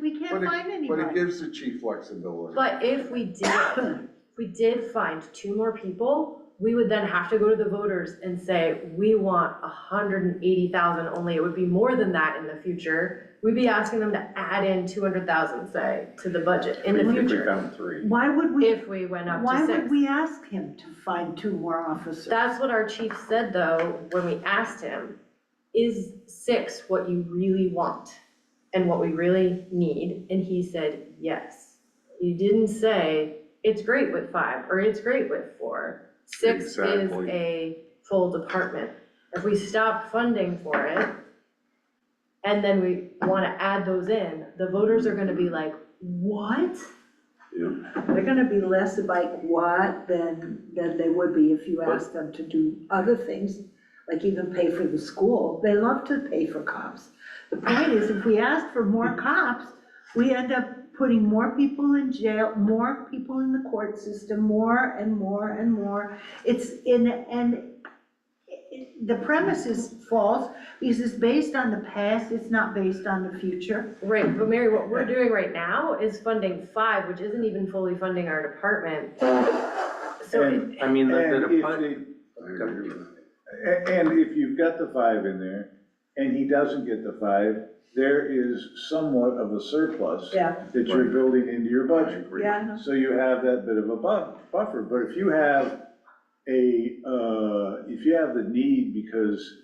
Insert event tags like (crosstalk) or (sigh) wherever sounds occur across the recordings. But can't it- find But it anybody. gives the chief flexibility. But if we did, if we did find two more people, we would then have to go to the voters and say, we want a hundred and eighty thousand only, it would be more than that in the future. We'd be asking them to add in two hundred thousand, say, to the budget in the If we future, found three. Why would we, if we went up why to would six. we ask him to find two more officers? That's what our chief said though, when we asked him, is six what you really want? And what we really need? And he said, yes. He didn't say, it's great with five, or it's great with four. Six is Exactly. a full department. If we stop funding for it, and then we wanna add those in, the voters are gonna be like, what? They're gonna be less about what than, than they would be if you asked them to do other things, like even pay for the school. They love to pay for cops. The point is, if we ask for more cops, we end up putting more people in jail, more people in the court system, more and more and more. It's in, and it- it- the premise is false, because it's based on the past, it's not based on the future. Right, but Mary, what we're doing right now is funding five, which isn't even fully funding our department. So it- And, I mean, the, And the if depart- they- I agree with that. A- And if you've got the five in there, and he doesn't get the five, there is somewhat of a surplus Yeah. that you're Right. building into your I budget. agree. So you have that bit of a bu- buffer, but if you have a, uh, if you have the need because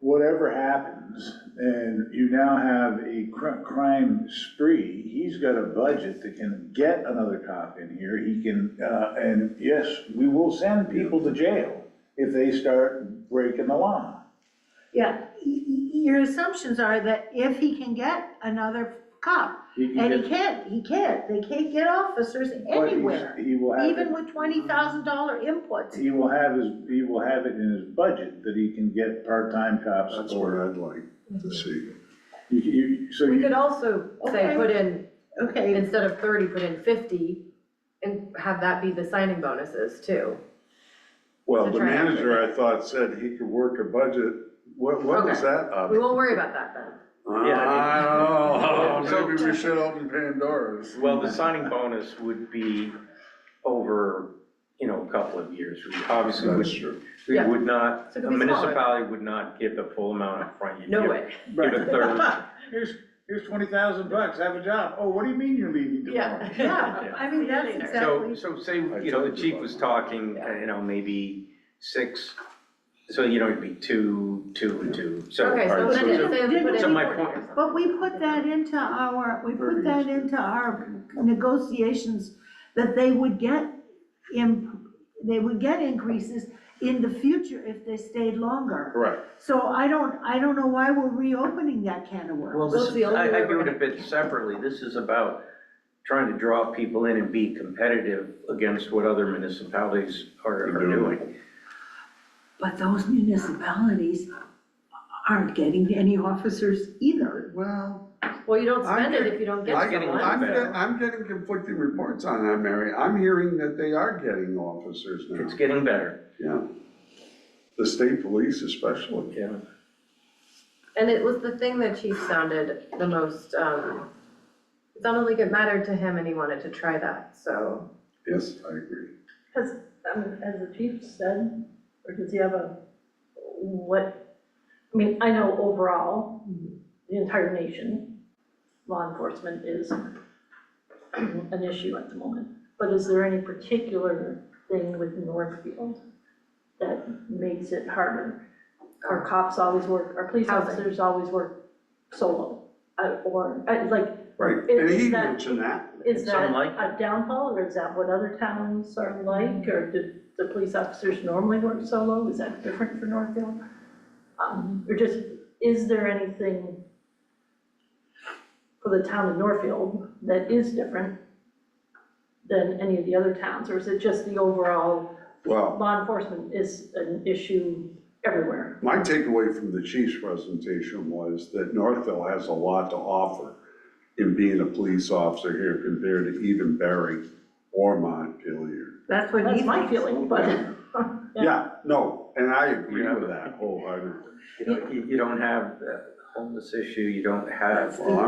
whatever happens, and you now have a cr- crime spree, he's got a budget that can get another cop in here, he can, uh, and yes, we will send people to jail if they start breaking the law. Yeah, y- y- your assumptions are that if he can get another cop, He can and he get- can't, he can't, they can't get officers but he's- anywhere, He will have. it- even with twenty thousand dollar inputs. He will have his, he will have it in his budget that he can get part-time cops That's what or, I'd like to see. you, you, so we you, could also say, Okay. put in, Okay, instead of thirty, put in fifty and have that be the signing bonuses too. Well, To the try and- manager, I thought, said he could work a budget, what, what was Okay. that Uh, up? We won't worry about that then. Yeah, I (laughs) I don't mean- know, oh, maybe we should open Pandora's. well, the signing bonus would be over, you know, a couple of years. We Obviously, That's would- true. we Yeah. would not, So it a could be smaller. municipality would not give the full amount upfront. You'd No give- way. Give a third. here's, here's twenty thousand bucks, have a job. Oh, what do you mean you're leaving tomorrow? yeah, I mean, that's So- So, exactly, so say, I you know, told the you chief about was that. talking, uh, Yeah. you know, maybe six, so, you know, it'd be two, two, and two, so. Okay, so or- then so- it say we put in So my 40 or point- something. but we put that into our, we put that into our negotiations, that they would get im- they would get increases in the future if they stayed longer. Correct. So I don't, I don't know why we're reopening that can of Well, worms. this That's the is, only I, way I we're do it a gonna- bit separately, this is about trying to draw people in and be competitive against what other municipalities are, are doing. But those municipalities aren't getting any officers either. Well, Well, you don't I'm spend it getting- if you don't I- get I'm getting- someone. I'm, better. get- I'm getting conflicting reports on that, Mary. I'm hearing that they are getting officers It's now, getting better, yeah. The state police especially. yeah. And it was the thing that chief sounded the most, um, it sounded like it mattered to him and he wanted to try that, so. Yes, I agree. um, as the chief said, or does he have a, what, I mean, I know overall, the entire nation, law enforcement is an issue at the moment. But is there any particular thing with Northfield that makes it harder? Our cops always work, our police Housing. officers always work solo, uh, or, uh, like, Right, It- and he it's not- mentioned that. is Some that like a downfall, or is that what other towns are like, or do the police officers normally work solo, is that different for Northfield? Um, or just, is there anything for the town of Northfield that is different than any of the other towns, or is it just the overall Well, law enforcement is an issue everywhere? my takeaway from the chief's presentation was that Northville has a lot to offer in being a police officer here compared to even Barry or Montpelier. That's what he That's my thinks. feeling, but. Yeah. Yeah, no, and I agree Yeah. with that wholeheartedly. You know, you, you don't have the homeless issue, you don't have. Well,